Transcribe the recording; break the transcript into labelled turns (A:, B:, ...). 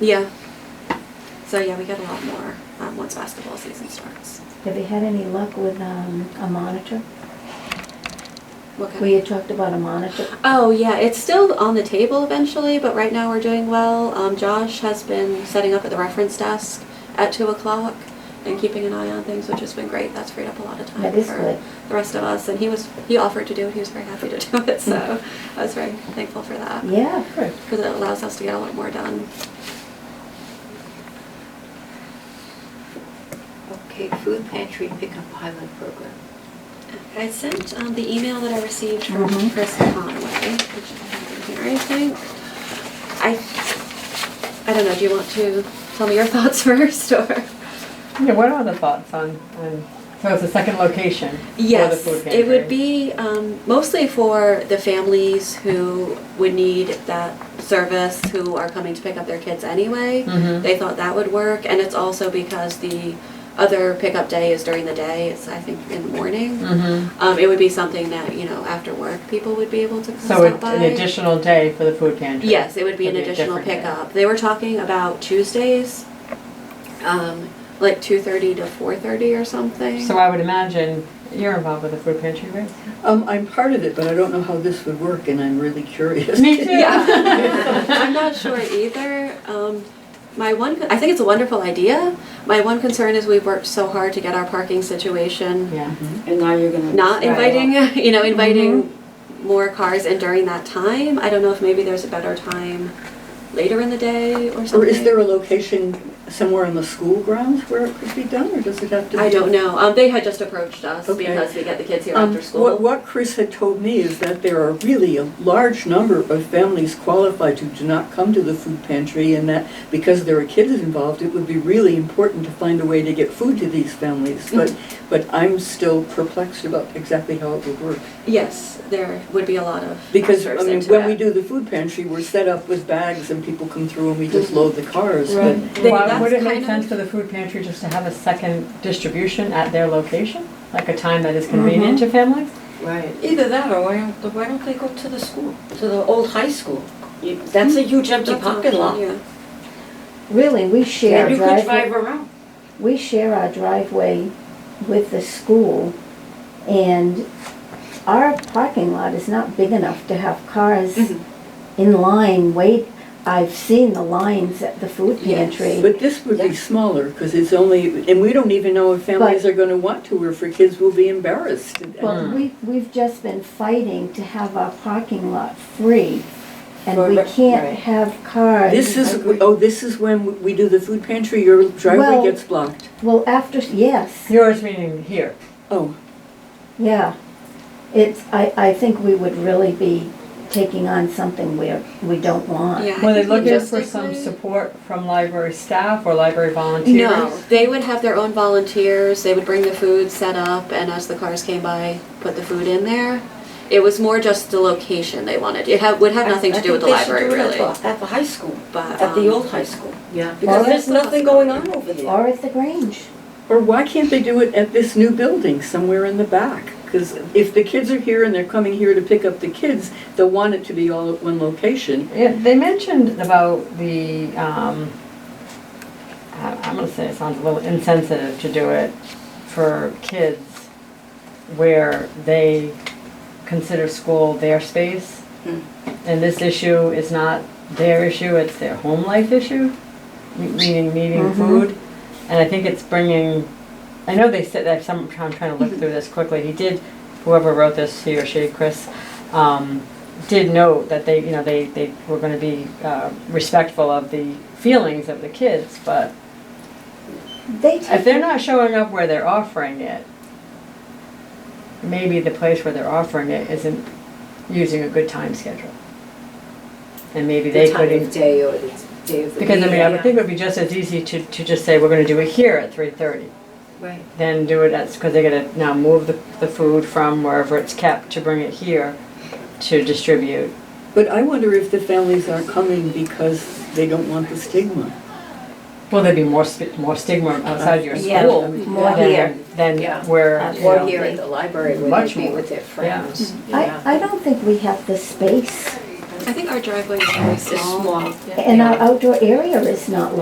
A: Yeah. So yeah, we get a lot more um, once basketball season starts.
B: Have you had any luck with um, a monitor?
A: What kind
B: We
A: of-
B: had talked about a monitor.
A: Oh yeah, it's still on the table eventually, but right now we're doing well. Um, Josh has been setting up at the reference desk at two o'clock and keeping an eye on things, which has been great. That's freed up a lot of time
B: That is
A: for
B: good.
A: the rest of us. And he was he offered to do it. He was very happy to do it. So I was very thankful for that
B: Yeah, good.
A: because it allows us to get a lot more done.
C: Okay, food pantry pickup pilot program.
A: I sent um, the email that I received from
B: Mhm.
A: Chris Conway, which I have in here, I think. I, I don't know, do you want to tell me your thoughts first, or?
D: Yeah, what are the thoughts on, on, so it's a second location for the
A: Yes,
D: food pantry?
A: it would be um, mostly for the families who would need that service, who are coming to pick up their kids anyway.
D: Mhm.
A: They thought that would work, and it's also because the other pickup day is during the day, it's, I think, in the morning.
D: Mhm.
A: Um, it would be something that, you know, after work, people would be able to come
D: So
A: stop
D: it-
A: by.
D: an additional day for the food pantry?
A: Yes, it would be an
D: It'd
A: additional
D: different day.
A: pickup. They were talking about Tuesdays, um, like two thirty to four thirty or something.
D: So I would imagine you're involved with the food pantry,
A: Mm-hmm.
D: right?
E: Um, I'm part of it, but I don't know how this would work, and I'm really curious.
D: Me too.
A: Yeah, I'm not sure either. Um, my one, I think it's a wonderful idea. My one concern is we've worked so hard to get our parking situation
D: Yeah.
E: And now you're gonna.
A: not inviting, you know, inviting
E: Mm-hmm.
A: more cars in during that time. I don't know if maybe there's a better time later in the day or something.
E: Or is there a location somewhere on the school grounds where it could be done, or does it have to be?
A: I don't know. Um, they had just approached us
E: Okay.
A: because we get the kids here
E: Um,
A: after school.
E: What, what Chris had told me is that there are really a large number of families qualified who do not come to the food pantry, and that because there are kids involved, it would be really important to find a way to get food to these families.
A: Mm-hmm.
E: But, but I'm still perplexed about exactly how it would work.
A: Yes, there would be a lot of
E: Because, I
A: factors
E: mean,
A: into
E: when we
A: it.
E: do the food pantry, we're set up with bags and people come through and we just load the cars. but-
D: Right.
A: They-
D: Why
A: that's
D: would it make
A: kind
D: sense
A: of-
D: for the food pantry just to have a second distribution at their location? Like a time that is convenient
A: Mm-hmm.
D: to families?
C: Right. Either that, or why don't, why don't they go to the school, to the old high school? You- That's a huge empty
A: That's an
C: parking
A: option,
C: lot.
A: yeah.
B: Really, we share
C: And
B: our
C: you could drive
B: driveway,
C: around.
B: we share our driveway with the school, and our parking lot is not big enough to have cars
A: Mhm.
C: Mm-hmm.
B: in line wait. I've seen the lines at the food
A: Yes.
B: pantry.
E: But this would be
C: Yeah.
E: smaller, because it's only, and we don't even know if families
B: But-
E: are gonna want to, or if our kids will be embarrassed.
C: Mm.
B: Well, we, we've just been fighting to have our parking lot free, and we
C: Right.
B: can't have cars.
E: This is, oh, this is when we do the food pantry, your
B: Well-
E: driveway gets blocked.
B: Well, after, yes,
D: Yours meaning here.
E: Oh,
B: yeah. It's, I, I think we would really be taking on something where we don't want.
A: Yeah, I
D: Were they
A: think
D: looking for some
A: logistically-
D: support from library staff or library volunteers?
A: No, they would have their own volunteers. They would bring the food, set up, and as the cars came by, put the food in there. It was more just the location they wanted. It ha- would have nothing
C: I-
A: to
C: I
A: do with the
C: think they should
A: library,
C: do it at
A: really.
C: the- At the high school,
A: But
C: at the
A: um,
C: old high school.
F: Yeah.
C: Because
B: Well,
C: there's
A: that's
C: nothing going on over there.
B: Or at the Grange.
E: or why can't they do it at this new building, somewhere in the back? Because if the kids are here and they're coming here to pick up the kids, they'll want it to be all at one location.
D: Yeah, they mentioned about the, um, I- I'm gonna say it sounds a little insensitive to do it for kids where they consider school their space. And this issue is not their issue, it's their home life issue, me- meaning needing
B: Mhm.
D: food. And I think it's bringing, I know they said that, some, I'm trying to look through this quickly, he did, whoever wrote this, he or she, Chris, um, did note that they, you know, they, they were gonna be, uh, respectful of the feelings of the kids, but
B: They
D: if they're
B: take,
D: not showing up where they're offering it, maybe the place where they're offering it isn't using a good time schedule. And maybe they could, in-
F: day or the day of
D: because I mean, I would think it would be just as easy to, to just say, we're gonna do it here at three thirty.
C: Right.
D: Then do it at, because they're gonna now move the, the food from wherever it's kept to bring it here to distribute.
E: But I wonder if the families are coming because they don't want the stigma.
D: Well, there'd be more sp- more stigma outside your
F: Yeah,
D: school
F: more
D: than
F: here.
D: than
F: Yeah.
D: where you know,
F: Or here at the library where
D: Much
F: they be
D: more.
F: with their friends.
B: I, I don't think we have the space
G: I think our driveway is very
A: It's
G: small.
A: small, yeah.
B: And our outdoor area is not